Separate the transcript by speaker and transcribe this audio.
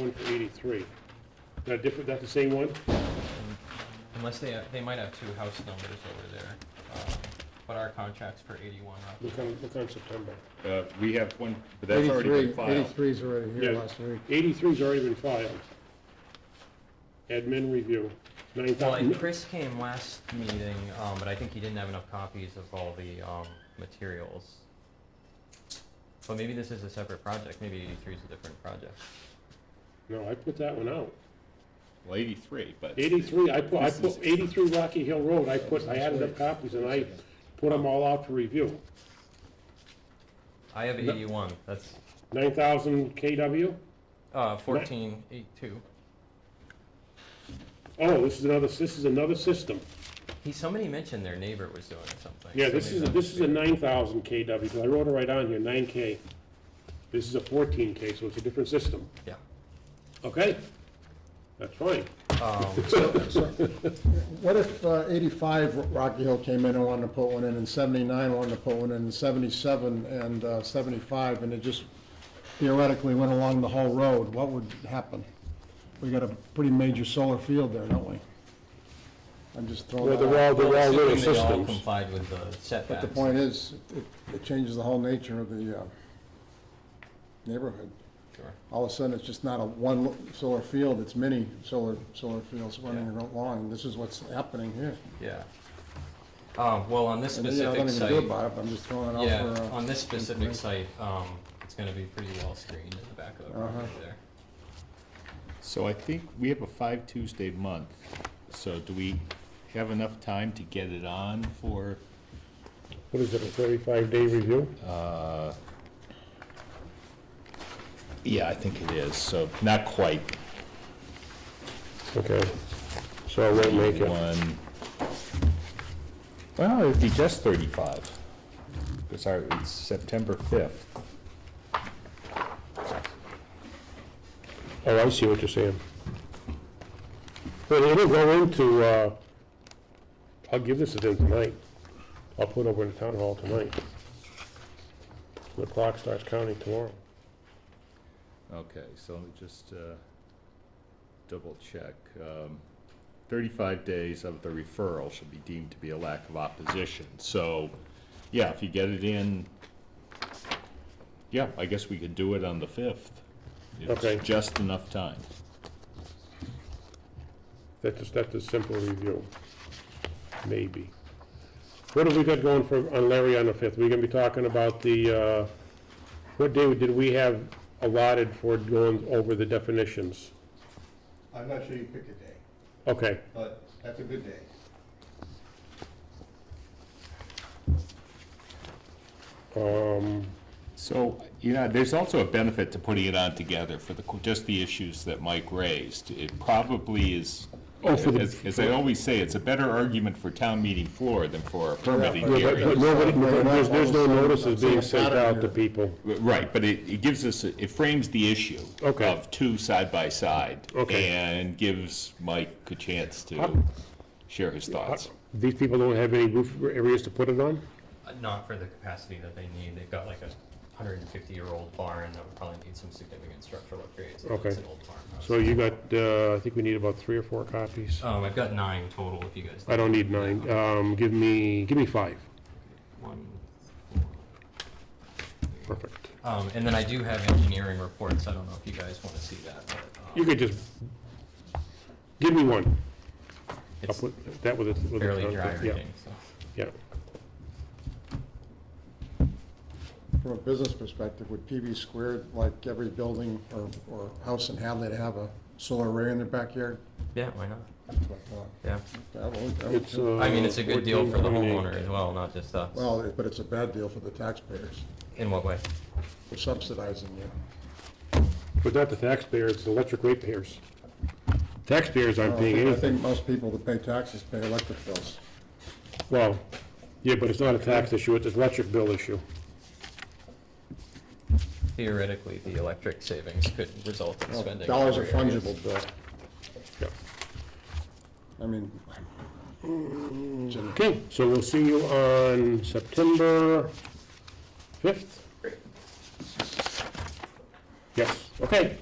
Speaker 1: one for eighty-three. Not different, not the same one?
Speaker 2: Unless they, they might have two house numbers over there, um, but our contract's for eighty-one
Speaker 1: Look
Speaker 2: Rockland.
Speaker 1: on, look on September.
Speaker 3: Uh, we have one, but that's already been filed.
Speaker 4: 83's already here
Speaker 1: Yeah.
Speaker 4: last week.
Speaker 1: Eighty-three's already been filed. Admin review, nine
Speaker 2: Well, and
Speaker 1: thousand,
Speaker 2: Chris came last meeting, um, but I think he didn't have enough copies of all the, um, materials. But maybe this is a separate project, maybe eighty-three is a different project.
Speaker 1: no, I put that one out.
Speaker 3: Well, eighty-three, but.
Speaker 1: Eighty-three, I put, I
Speaker 3: This is-
Speaker 1: put, eighty-three Rocky Hill Road, I put, I added up copies and I put them all out for review.
Speaker 2: I have
Speaker 1: No.
Speaker 2: eighty-one, that's,
Speaker 1: Nine thousand KW?
Speaker 2: uh, fourteen eight-two.
Speaker 1: Oh, this is another, this is another system.
Speaker 2: He, somebody mentioned their neighbor was doing something.
Speaker 1: Yeah,
Speaker 2: so
Speaker 1: this
Speaker 2: maybe
Speaker 1: is, a-
Speaker 2: that
Speaker 1: this
Speaker 2: must
Speaker 1: is a
Speaker 2: be-
Speaker 1: nine thousand KW, because I wrote it right on here, nine K. This is a fourteen K, so it's a different system,
Speaker 2: Yeah.
Speaker 1: okay? That's fine.
Speaker 2: Um,
Speaker 4: What if uh, 85 Rocky Hill came in and wanted to put one in, and 79 wanted to put one in, and 77 and uh, 75, and it just theoretically went along the whole road? What would happen? We got a pretty major solar field there, don't we? I'm just throwing
Speaker 1: Well,
Speaker 4: that
Speaker 1: they're all,
Speaker 4: out.
Speaker 1: they're all
Speaker 2: assuming
Speaker 1: little
Speaker 2: they all
Speaker 1: systems.
Speaker 2: Complied with the setbacks.
Speaker 4: But the point is, it- it changes the whole nature of the uh, neighborhood.
Speaker 2: Sure.
Speaker 4: all of a sudden, it's just not a one solar field, it's many solar, solar fields running along. This is what's happening here.
Speaker 2: Yeah. Um, well, on this
Speaker 4: And you know,
Speaker 2: specific
Speaker 4: I don't even
Speaker 2: site,
Speaker 4: do about it, but I'm just throwing it
Speaker 2: yeah,
Speaker 4: out for, uh,
Speaker 2: on this specific site, um, it's gonna be pretty well screened in the back of the
Speaker 1: Uh-huh.
Speaker 2: property there.
Speaker 3: So I think we have a five Tuesday month, so do we have enough time to get it on for,
Speaker 1: What is it, a thirty-five day review?
Speaker 3: uh? Yeah, I think it is, so not quite.
Speaker 1: Okay, so I won't make it.
Speaker 3: One. Well, it'd be just thirty-five. Sorry, it's September fifth.
Speaker 1: Oh, I see what you're saying. Well, it'll go into, uh, I'll give this a thing tonight. I'll put it over in the town hall tonight. The clock starts counting tomorrow.
Speaker 3: Okay, so let me just uh, double check. Um, Thirty-five days of the referral should be deemed to be a lack of opposition. So, yeah, if you get it in, yeah, I guess we could do it on the fifth.
Speaker 1: Okay.
Speaker 3: It's just enough time.
Speaker 1: That's, just- that's a simple review, maybe. What have we got going for, on Larry on the 5th? We're gonna be talking about the, uh, what day did we have allotted for going over the definitions?
Speaker 5: I'm not sure you picked a day,
Speaker 1: Okay,
Speaker 5: but that's a good day.
Speaker 1: um,
Speaker 3: So, you know, there's also a benefit to putting it on together for the, just the issues that Mike raised. It probably is,
Speaker 1: Oh, for the-
Speaker 3: as as I always say, it's a better argument for town meeting floor than for a permitting
Speaker 4: but-
Speaker 3: hearing.
Speaker 1: but- but nobody, there's, there's no notices being sent out to people.
Speaker 3: Right, but it, it gives us, it frames the issue
Speaker 1: Okay.
Speaker 3: of two side by side.
Speaker 1: Okay.
Speaker 3: And gives Mike a chance
Speaker 1: How-
Speaker 3: to share his thoughts.
Speaker 1: These people don't have any roof areas to put it on?
Speaker 2: Uh, Not for the capacity that they need, they've got like a hundred and fifty-year-old barn that would probably need some significant structural upgrades. if
Speaker 1: Okay.
Speaker 2: It's an old farmhouse.
Speaker 1: So you got, uh, I think we need about three or four copies.
Speaker 2: Um, I've got nine total if you guys.
Speaker 1: I don't need nine, um, give me, give me five,
Speaker 2: One,
Speaker 1: perfect.
Speaker 2: um, and then I do have engineering reports, I don't know if you guys wanna see that, but,
Speaker 1: You
Speaker 2: um,
Speaker 1: could just, give me one. I'll
Speaker 2: it's
Speaker 1: put that with a. with a
Speaker 2: fairly
Speaker 1: con-
Speaker 2: dry
Speaker 1: yeah,
Speaker 2: reading, so.
Speaker 1: Yeah,
Speaker 4: from a business perspective, would PB squared, like every building or, or house in Hadley to have a solar array in their backyard?
Speaker 2: Yeah, why not?
Speaker 4: That's what I thought.
Speaker 2: Yeah.
Speaker 4: That would- that would-
Speaker 1: it's, uh.
Speaker 2: I mean, it's a good deal for the
Speaker 1: 14.28.
Speaker 2: homeowner as well, not just us.
Speaker 4: Well, it- but it's a bad deal for the taxpayers.
Speaker 2: In what way?
Speaker 4: We're subsidizing you.
Speaker 1: But not the taxpayers, it's the electric ratepayers. Taxpayers
Speaker 4: I
Speaker 1: aren't paying
Speaker 4: think- I
Speaker 1: anything.
Speaker 4: think most people that pay taxes pay electric bills.
Speaker 1: Well, yeah, but it's not a tax issue, it's an electric bill issue.
Speaker 2: Theoretically, the electric savings could result in spending.
Speaker 4: Dollars are
Speaker 2: in other areas.
Speaker 4: fungible, Bill.
Speaker 1: Yeah.
Speaker 4: I mean,
Speaker 2: Mm-hmm.
Speaker 1: Okay, so we'll see you on September fifth? Yes, okay.